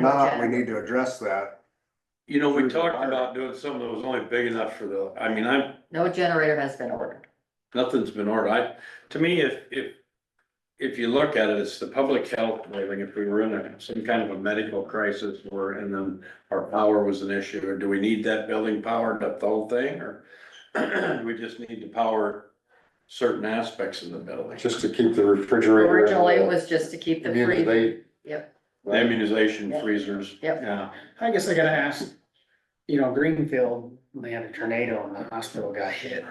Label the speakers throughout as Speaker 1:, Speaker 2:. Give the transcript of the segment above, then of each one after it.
Speaker 1: not, we need to address that.
Speaker 2: You know, we
Speaker 1: Through the
Speaker 2: talked
Speaker 1: fire.
Speaker 2: about doing something that was only big enough for the, I mean, I'm,
Speaker 3: No generator has been ordered.
Speaker 2: nothing's been ordered. I, to me, if, if. If you look at it, it's the public health, I think if we were in a- some kind of a medical crisis or, and then our power was an issue, or do we need that building powered up the whole thing, or? do We just need to power certain aspects of the building.
Speaker 4: just to keep the refrigerator. and
Speaker 3: Originally, it
Speaker 4: the-
Speaker 3: was just to keep the
Speaker 4: the end of the
Speaker 3: free,
Speaker 4: day.
Speaker 3: yep,
Speaker 2: Immunization freezers.
Speaker 3: Yep.
Speaker 2: Yeah,
Speaker 5: I guess I gotta ask, you know, Greenfield, they had a tornado and the hospital got hit.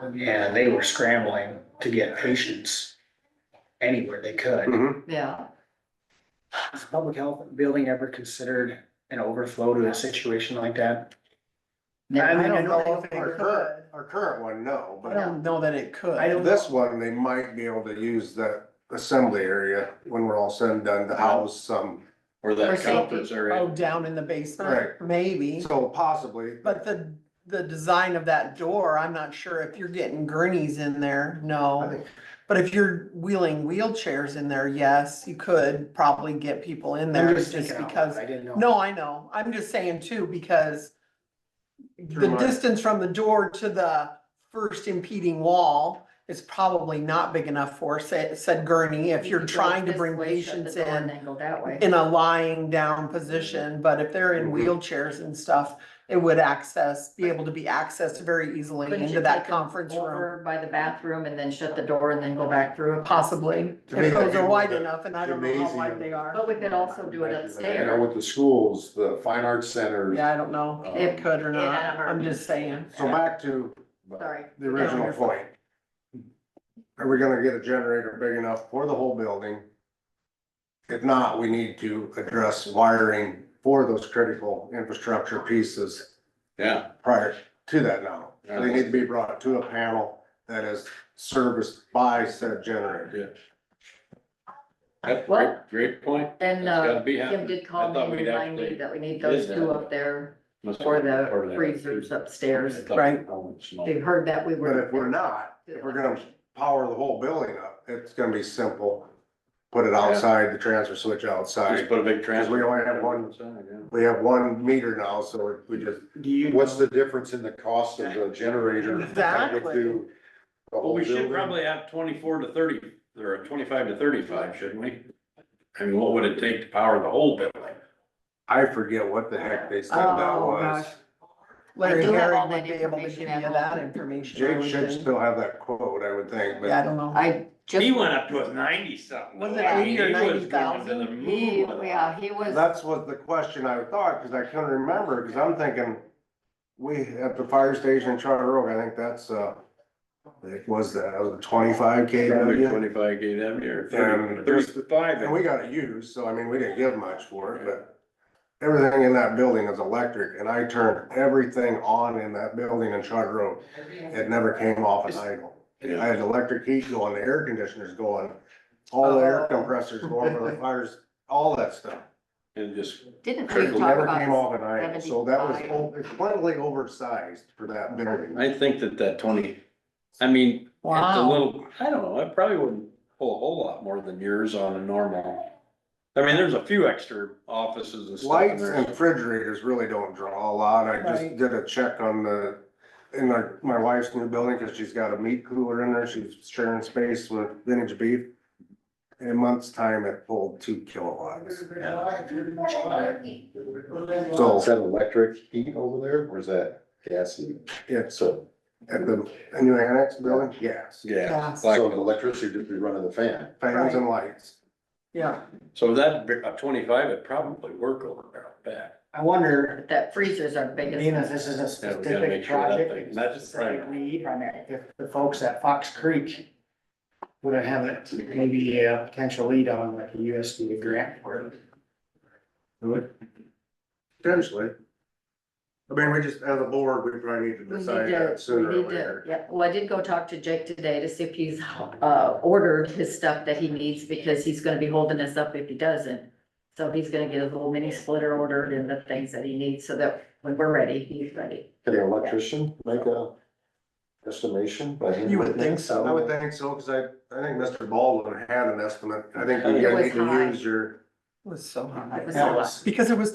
Speaker 5: And they were scrambling to get patients anywhere they
Speaker 4: Hmm.
Speaker 5: could.
Speaker 3: yeah.
Speaker 5: Has public health building ever considered an overflow to a situation like that?
Speaker 1: I
Speaker 5: I mean, I
Speaker 1: don't
Speaker 5: know
Speaker 1: know
Speaker 5: they
Speaker 1: if our
Speaker 5: could.
Speaker 1: current, our current one, no,
Speaker 6: I
Speaker 1: but
Speaker 6: don't know that it could.
Speaker 5: I don't-
Speaker 1: this one, they might be able to use that assembly area when we're all said and done to house some.
Speaker 2: or
Speaker 3: Or
Speaker 2: that
Speaker 3: safety.
Speaker 2: conference
Speaker 6: Oh,
Speaker 2: area.
Speaker 6: down in the
Speaker 1: Right.
Speaker 6: basement, maybe,
Speaker 1: So possibly,
Speaker 6: but the, the design of that door, I'm not sure if you're getting gurneys in there,
Speaker 1: I
Speaker 6: no.
Speaker 1: think,
Speaker 6: But if you're wheeling wheelchairs in there, yes, you could probably get people in there
Speaker 5: I'm just
Speaker 6: just
Speaker 5: thinking out
Speaker 6: because.
Speaker 5: loud, I didn't know.
Speaker 6: No, I know, I'm just saying too, because
Speaker 1: Through
Speaker 6: the
Speaker 1: my-
Speaker 6: distance from the door to the first impeding wall is probably not big enough for said, said gurney, if you're
Speaker 3: You could go
Speaker 6: trying to
Speaker 3: this
Speaker 6: bring
Speaker 3: way, shut the
Speaker 6: patients
Speaker 3: door and
Speaker 6: in
Speaker 3: then go that way.
Speaker 6: in a lying down position, but if they're in
Speaker 1: Mhm.
Speaker 6: wheelchairs and stuff, it would access, be able to be accessed very easily
Speaker 3: Couldn't you
Speaker 6: into that
Speaker 3: take them
Speaker 6: conference room,
Speaker 3: Over by the bathroom and then shut the door and then go back through it possibly.
Speaker 6: possibly.
Speaker 1: To me,
Speaker 6: If those
Speaker 1: that'd
Speaker 6: are
Speaker 1: be
Speaker 6: wide
Speaker 1: the
Speaker 6: enough, and I don't know how wide
Speaker 1: gymnasium.
Speaker 6: they are.
Speaker 3: But we could also do it
Speaker 4: You know,
Speaker 3: upstairs.
Speaker 4: with the schools, the fine arts centers.
Speaker 6: Yeah, I don't know
Speaker 4: um,
Speaker 6: if it could or
Speaker 3: Yeah, I
Speaker 6: not,
Speaker 3: don't know.
Speaker 6: I'm just saying.
Speaker 1: so back to
Speaker 4: but-
Speaker 3: Sorry.
Speaker 1: the original point. Are we gonna get a generator big enough for the whole building? If not, we need to address wiring for those critical infrastructure pieces
Speaker 2: Yeah,
Speaker 1: prior to that now. They need to be brought to a panel that is serviced by said generator.
Speaker 2: that's great,
Speaker 3: Well-
Speaker 2: great point.
Speaker 3: Then,
Speaker 2: That's gotta
Speaker 3: uh,
Speaker 2: be
Speaker 3: Kim
Speaker 2: happening.
Speaker 3: did
Speaker 2: I
Speaker 3: call me
Speaker 2: thought
Speaker 3: and
Speaker 2: we'd
Speaker 3: remind me
Speaker 2: actually-
Speaker 3: that we need those
Speaker 2: did
Speaker 3: two
Speaker 2: that.
Speaker 3: up there
Speaker 2: Must
Speaker 3: for
Speaker 2: be
Speaker 3: the
Speaker 2: part of that.
Speaker 3: freezers upstairs.
Speaker 2: I thought-
Speaker 6: Right.
Speaker 2: oh, it's not.
Speaker 3: They heard that we were.
Speaker 1: But if we're not, if we're gonna power the whole building up, it's gonna be simple. Put it outside, the transfer switch
Speaker 2: Just
Speaker 1: outside.
Speaker 2: put a big
Speaker 1: Cause
Speaker 2: transfer.
Speaker 1: we only have one,
Speaker 2: Yeah.
Speaker 1: we have one meter now, so we just,
Speaker 5: Do you?
Speaker 4: What's
Speaker 5: know-
Speaker 4: the difference in the cost of the generator?
Speaker 6: Exactly.
Speaker 4: compared to The
Speaker 2: Well,
Speaker 4: whole
Speaker 2: we should
Speaker 4: building?
Speaker 2: probably have twenty-four to thirty, or twenty-five to thirty-five, shouldn't we? I mean, what would it take to power the whole building?
Speaker 1: I forget what the heck they said that
Speaker 6: Oh,
Speaker 1: was.
Speaker 6: gosh. Larry
Speaker 3: I do have all
Speaker 6: Herring would
Speaker 3: that
Speaker 6: be able to give
Speaker 3: information
Speaker 6: you
Speaker 3: at home.
Speaker 6: that information. I
Speaker 1: Jake
Speaker 6: would
Speaker 1: should
Speaker 6: think.
Speaker 1: still have that quote, I would think,
Speaker 6: Yeah, I
Speaker 1: but
Speaker 6: don't know.
Speaker 3: I just.
Speaker 2: He went up to ninety something.
Speaker 6: Was it
Speaker 2: I mean,
Speaker 6: 80 or
Speaker 2: he was going to
Speaker 6: 90,000?
Speaker 2: the
Speaker 3: He,
Speaker 2: moon with it.
Speaker 3: yeah, he was.
Speaker 1: that's what the question I thought, cause I couldn't remember, cause I'm thinking. We, at the fire station in Charter Oak, I think that's, uh, it was uh, that, was it twenty-five K
Speaker 2: Probably
Speaker 1: W?
Speaker 2: twenty-five gave them here,
Speaker 1: And-
Speaker 2: thirty-five.
Speaker 1: And we got it used, so I mean, we didn't give much for it, but everything in that building is electric and I turned everything on in that building in Charter Oak. It never came off an idle. I
Speaker 2: Yeah.
Speaker 1: had electric heat going, the air conditioners going, all the air compressors going for the fires, all that stuff.
Speaker 2: And just,
Speaker 3: Didn't we
Speaker 1: It
Speaker 3: talk
Speaker 1: never
Speaker 3: about?
Speaker 1: came off an idle, so that was
Speaker 3: 75?
Speaker 1: o- it's completely oversized for that building.
Speaker 2: I think that that twenty, I mean, It's a
Speaker 6: Wow.
Speaker 2: little, I don't know, I probably wouldn't pull a whole lot more than yours on a normal. I mean, there's a few extra offices and stuff in
Speaker 1: Lights and
Speaker 2: there.
Speaker 1: refrigerators really don't draw a lot. I just
Speaker 6: Right.
Speaker 1: did a check on the, in my, my wife's new building, cause she's got a meat cooler in there. She's sharing space with vintage beef. In a month's time, it pulled two kilowatts. So
Speaker 4: Is that electric heat over there, or is that gas heat?
Speaker 1: it's
Speaker 4: So,
Speaker 1: at the new annex building, yes,
Speaker 2: Yeah.
Speaker 6: Gas.
Speaker 2: like-
Speaker 4: so the electricity just be running the fan.
Speaker 1: fans and lights.
Speaker 6: Yeah,
Speaker 2: So that, bi- a twenty-five, it'd probably work over there, I bet.
Speaker 5: I wonder,
Speaker 3: But That freezer's our
Speaker 5: being that
Speaker 3: biggest.
Speaker 5: this is a
Speaker 2: Yeah, we gotta make
Speaker 5: specific
Speaker 2: sure that
Speaker 5: project,
Speaker 2: thing-
Speaker 5: it's
Speaker 2: that's
Speaker 5: specific
Speaker 2: right.
Speaker 5: need, if the folks at Fox Creek would have it, maybe a potential lead on like a USDA grant for it.
Speaker 1: Potentially. I mean, we just, as a board, we probably need
Speaker 3: We
Speaker 1: to
Speaker 3: need
Speaker 1: decide
Speaker 3: to,
Speaker 1: that
Speaker 3: we
Speaker 1: sooner or
Speaker 3: need to,
Speaker 1: later.
Speaker 3: yeah, well, I did go talk to Jake today to see if he's, uh, ordered his stuff that he needs because he's gonna be holding us up if he doesn't. So he's gonna get his little mini splitter ordered and the things that he needs so that when we're ready, he's ready.
Speaker 4: Can an electrician make a estimation by? hand?
Speaker 6: You would think so.
Speaker 1: I would think so, cause I, I think Mr. Baldwin had an estimate. I think you
Speaker 3: It
Speaker 1: guys
Speaker 3: was
Speaker 1: need to
Speaker 3: high.
Speaker 1: use your
Speaker 6: was so high.
Speaker 3: It was
Speaker 5: That
Speaker 3: a lot.
Speaker 5: was-
Speaker 6: Because it was